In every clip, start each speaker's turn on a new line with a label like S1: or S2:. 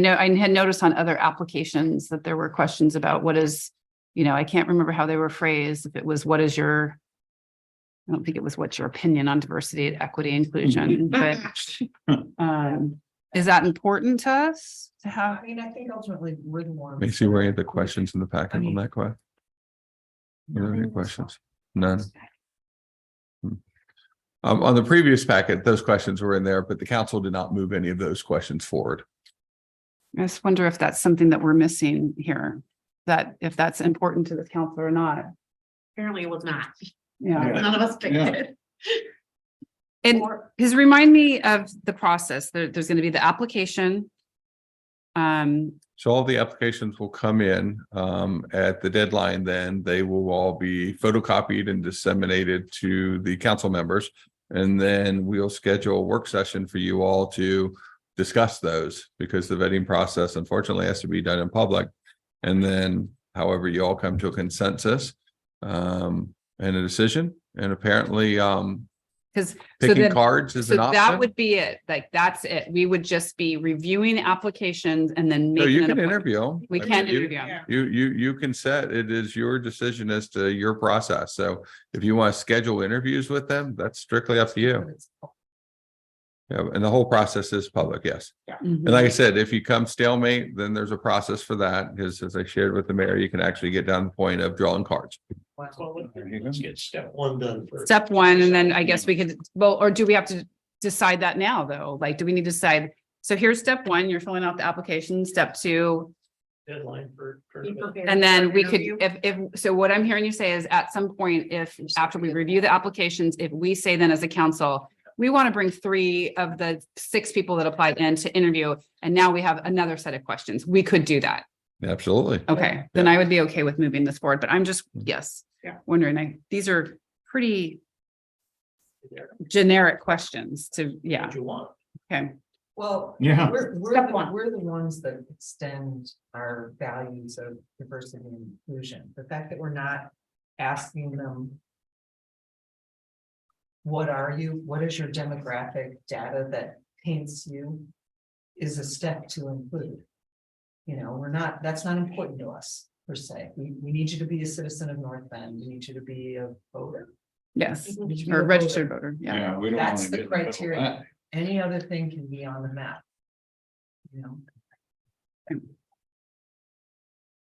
S1: know, I had noticed on other applications that there were questions about what is, you know, I can't remember how they were phrased, if it was what is your. I don't think it was what's your opinion on diversity, equity, inclusion, but um, is that important to us to have?
S2: I mean, I think ultimately we're the one.
S3: Macy, where are the questions in the packet on that question? Were there any questions? None. Hmm. Um, on the previous packet, those questions were in there, but the council did not move any of those questions forward.
S1: I just wonder if that's something that we're missing here, that if that's important to the council or not,
S4: Apparently it was not.
S1: yeah.
S4: None of us picked
S3: Yeah.
S4: it.
S1: And
S4: Or-
S1: Because remind me of the process. There, there's going to be the application. Um,
S3: So all the applications will come in um at the deadline, then they will all be photocopied and disseminated to the council members. And then we'll schedule a work session for you all to discuss those because the vetting process unfortunately has to be done in public. And then however you all come to a consensus um and a decision and apparently um
S1: 'Cause- so
S3: picking
S1: then-
S3: cards is
S1: so
S3: an
S1: that
S3: option.
S1: would be it. Like, that's it. We would just be reviewing applications and then
S3: So you
S1: making an
S3: can
S1: appointment.
S3: interview. 'em.
S1: We
S3: I
S1: can
S3: mean, you-
S1: interview. them.
S3: You, you, you can set, it is your decision as to your process. So if you want to schedule interviews with them, that's strictly up to you. Yeah, and the whole process is public, yes.
S1: Mhm.
S3: And like I said, if you come stalemate, then there's a process for that. Because as I shared with the mayor, you can actually get down to the point of drawing cards.
S5: Let's get step one done first.
S1: Step one, and then I guess we could, well, or do we have to decide that now, though? Like, do we need to decide? So here's step one, you're filling out the application. Step two,
S5: Deadline for. for-
S4: Be prepared
S1: And then
S4: for
S1: we could,
S4: interview.
S1: if, if, so what I'm hearing you say is at some point, if, after we review the applications, if we say then as a council, we want to bring three of the six people that applied in to interview, and now we have another set of questions. We could do that.
S3: Absolutely.
S1: Okay, then I would be okay with moving this forward, but I'm just, yes.
S4: Yeah.
S1: Wondering, I, these are pretty generic questions to, yeah,
S5: What you want.
S1: okay.
S2: Well,
S6: Yeah.
S2: we're, we're,
S4: Step
S2: the-
S4: one.
S2: we're the ones that extend our values of diversity and inclusion. The fact that we're not asking them. What are you? What is your demographic data that paints you? Is a step to include. You know, we're not, that's not important to us per se. We, we need you to be a citizen of North Bend. We need you to be a voter.
S1: Yes,
S2: We need you to be
S1: or
S2: a
S1: registered
S2: voter.
S1: voter, Mm-hmm. yeah.
S6: Yeah, we don't.
S2: That's
S6: wanna
S2: the
S6: get in middle of
S2: criteria.
S6: that.
S2: Any other thing can be on the map. You know?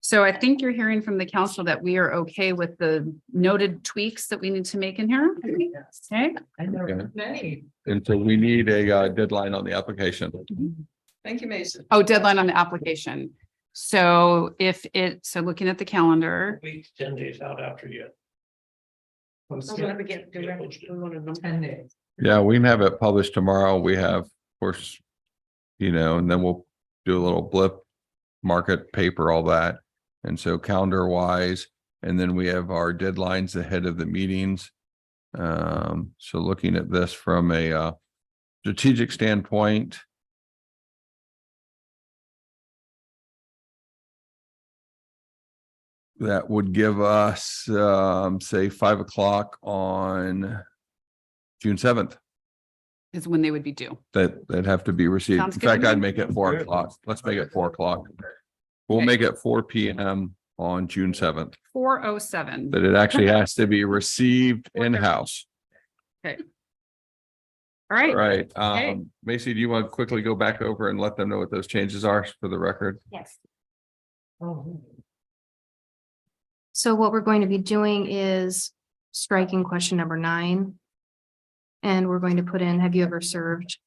S1: So I think you're hearing from the council that we are okay with the noted tweaks that we need to make in here.
S2: Yes,
S1: Okay,
S2: I know
S3: Okay.
S2: many.
S3: And so we need a uh, deadline on the application.
S1: Mm-hmm.
S2: Thank you, Mason.
S1: oh, deadline on the application. So if it, so looking at the calendar,
S5: Week, ten days out after you.
S4: I'm gonna get direct- we wanna know.
S2: Ten days.
S3: Yeah, we can have it published tomorrow. We have, of course, you know, and then we'll do a little blip, market paper, all that. And so calendar wise, and then we have our deadlines ahead of the meetings. Um, so looking at this from a uh strategic standpoint. That would give us um, say five o'clock on June seventh
S1: is when they would be due.
S3: that that have to be received. In
S1: Sounds good to
S3: fact, I'd
S1: me.
S3: make it four o'clock. Let's make it four o'clock. We'll
S1: Okay.
S3: make it four P M on June seventh,
S1: Four oh seven.
S3: that it actually has to be received in-house,
S1: All right.
S3: right?
S1: Okay.
S3: Um, Macy, do you want to quickly go back over and let them know what those changes are for the record?
S4: Yes.
S2: Oh,
S7: So what we're going to be doing is striking question number nine. And we're going to put in, have you ever served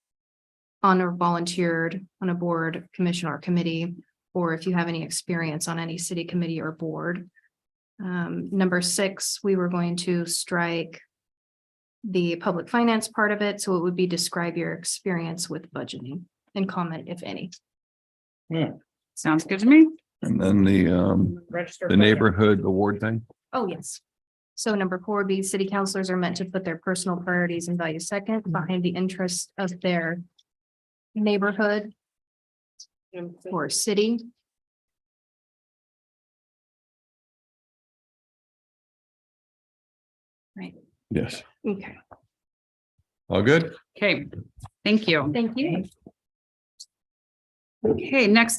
S7: on or volunteered on a board, commission or committee? Or if you have any experience on any city committee or board. Um, number six, we were going to strike the public finance part of it, so it would be describe your experience with budgeting and comment if any.
S1: Sounds good to me.
S3: And then the um,
S4: Register
S3: the
S4: voter.
S3: neighborhood award thing.
S7: Oh, yes. So number four would be city councilors are meant to put their personal priorities and values second behind the interests of their neighborhood or city.
S3: Yes.
S7: Okay,
S3: All good?
S1: Okay, thank you.
S7: thank you.
S1: Okay, next